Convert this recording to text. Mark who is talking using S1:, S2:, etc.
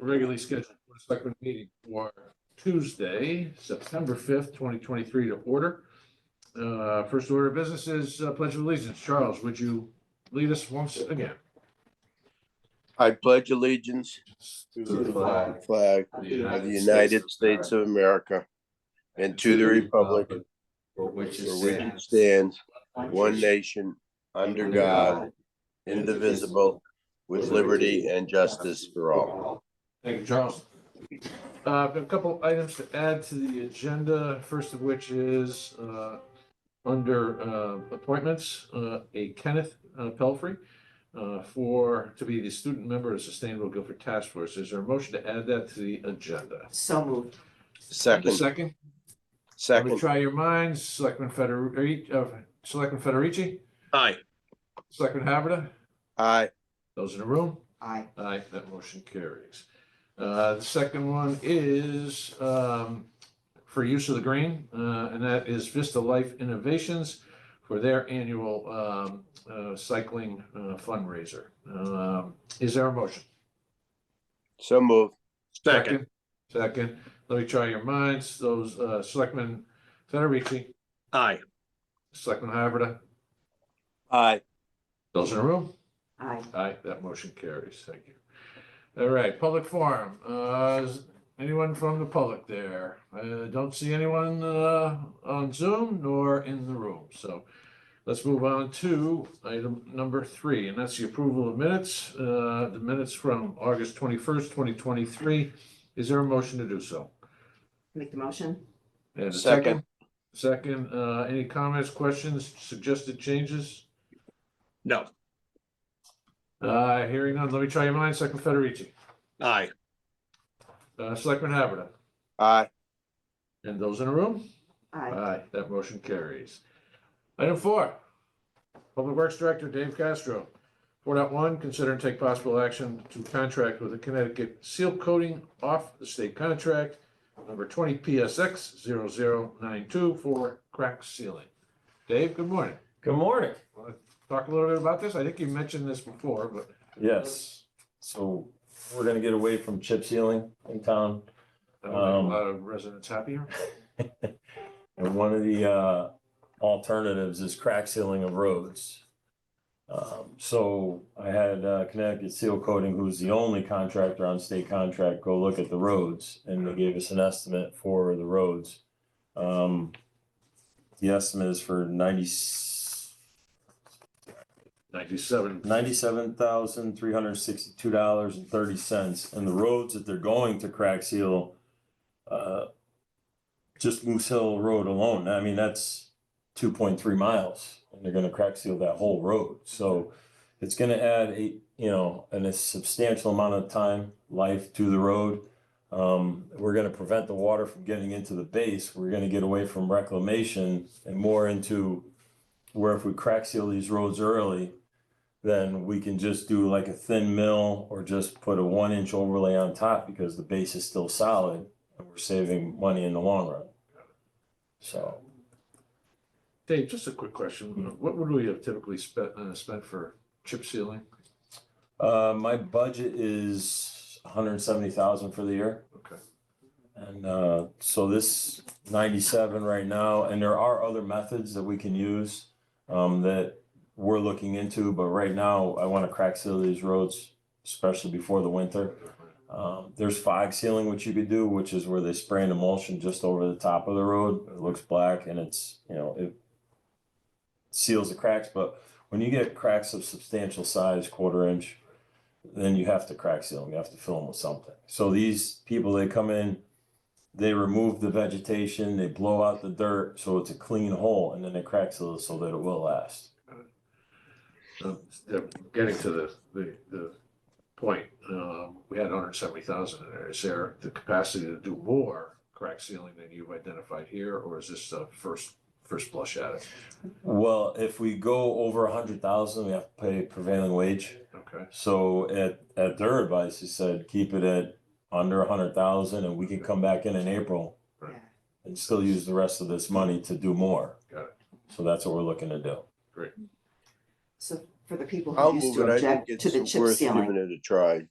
S1: regularly scheduled Board of Selectmen meeting for Tuesday, September fifth, twenty twenty-three to order. Uh, first order of business is uh, Pledge of Allegiance. Charles, would you lead us once again?
S2: I pledge allegiance
S3: To
S2: to
S3: the flag
S2: flag
S3: of the
S2: of the United States of America and to the republic
S3: For which
S2: for
S3: it
S2: which it
S3: stands.
S2: stands, one nation, under God, indivisible, with liberty and justice for all.
S1: Thank you, Charles. Uh, I've got a couple items to add to the agenda, first of which is, uh, under, uh, appointments, uh, a Kenneth uh, Pelfrey, uh, for, to be the student member of Sustainable Guilford Task Force. Is there a motion to add that to the agenda?
S4: So moved.
S1: Second,
S2: Second,
S1: let me
S2: second,
S1: try your minds. Selectman Federici, uh, Selectman Federici?
S2: Aye.
S1: Selectman Haberda?
S2: aye,
S1: Those in the room?
S4: Aye.
S1: Aye, that motion carries. Uh, the second one is, um, for use of the green, uh, and that is Vista Life Innovations for their annual, um, uh, cycling uh, fundraiser. Um, is there a motion?
S2: so move,
S1: Second. Second, let me try your minds, those, uh, Selectman Federici,
S5: Aye,
S1: Selectman Haberda,
S2: aye,
S1: those in the room?
S4: Aye.
S1: Aye, that motion carries. Thank you. All right, public forum. Uh, is anyone from the public there? I don't see anyone, uh, on Zoom nor in the room, so let's move on to item number three, and that's the approval of minutes, uh, the minutes from August twenty-first, twenty twenty-three. Is there a motion to do so?
S4: Make the motion?
S1: And a
S2: Second.
S1: Second, uh, any comments, questions, suggested changes?
S5: no,
S1: Uh, hearing none, let me try your mind, Second Federici,
S5: aye,
S1: uh, Selectman Haberda.
S2: aye,
S1: And those in the room?
S4: Aye.
S1: Aye, that motion carries. Item four, Public Works Director Dave Castro. Four point one. consider and take possible action to contract with the Connecticut Seal Coating off the state contract number twenty PSX 0092 for crack sealing. Dave, good morning.
S6: Good morning.
S1: Wanna Talk a little bit about this. I think you mentioned this before, but
S6: Yes, so we're gonna get away from chip sealing in town.
S1: that'll make
S6: Um,
S1: a lot of residents happier.
S6: And one of the uh alternatives is crack sealing of roads. Um, so I had uh, Connecticut Seal Coating, who's the only contractor on state contract, go look at the roads and they gave us an estimate for the roads. Um, the estimate is for ninety,
S1: Ninety-seven.
S6: ninety-seven thousand, three hundred and sixty-two dollars and thirty cents, and the roads that they're going to crack seal, uh, just Moose Hill Road alone, I mean, that's two point three miles, and they're gonna crack seal that whole road, so it's gonna add a, you know, and a substantial amount of time, life to the road. Um, we're gonna prevent the water from getting into the base, we're gonna get away from reclamation and more into where if we crack seal these roads early, then we can just do like a thin mill or just put a one inch overlay on top because the base is still solid and we're saving money in the long run. So
S1: Dave, just a quick question. What would we have typically spent, uh, spent for chip sealing?
S6: uh my budget is hundred and seventy thousand for the year.
S1: Okay.
S6: And uh so this ninety-seven right now, and there are other methods that we can use um that we're looking into, but right now I want to crack seal these roads, especially before the winter. Um, there's fog sealing, which you could do, which is where they spray an emulsion just over the top of the road. It looks black and it's, you know, it seals the cracks, but when you get cracks of substantial size, quarter inch, then you have to crack seal them. You have to fill them with something. So these people, they come in, they remove the vegetation, they blow out the dirt, so it's a clean hole, and then they crack seal it so that it will last.
S1: Um, uh, Getting to the, the, the point, um, we had hundred and seventy thousand in there. Is there the capacity to do more crack sealing than you've identified here, or is this the first, first blush at it?
S6: Well, if we go over a hundred thousand, we have to pay prevailing wage.
S1: Okay,
S6: So at, at their advice, he said, keep it at under a hundred thousand and we can come back in in April
S1: Right.
S4: Yeah.
S6: and still use the rest of this money to do more.
S1: Got it.
S6: So that's what we're looking to do.
S4: So for the people
S2: I'll
S4: who used
S2: move
S4: to
S2: it, I think
S4: object to the
S2: it's
S4: chip
S2: worth
S4: ceiling.
S2: giving it a try,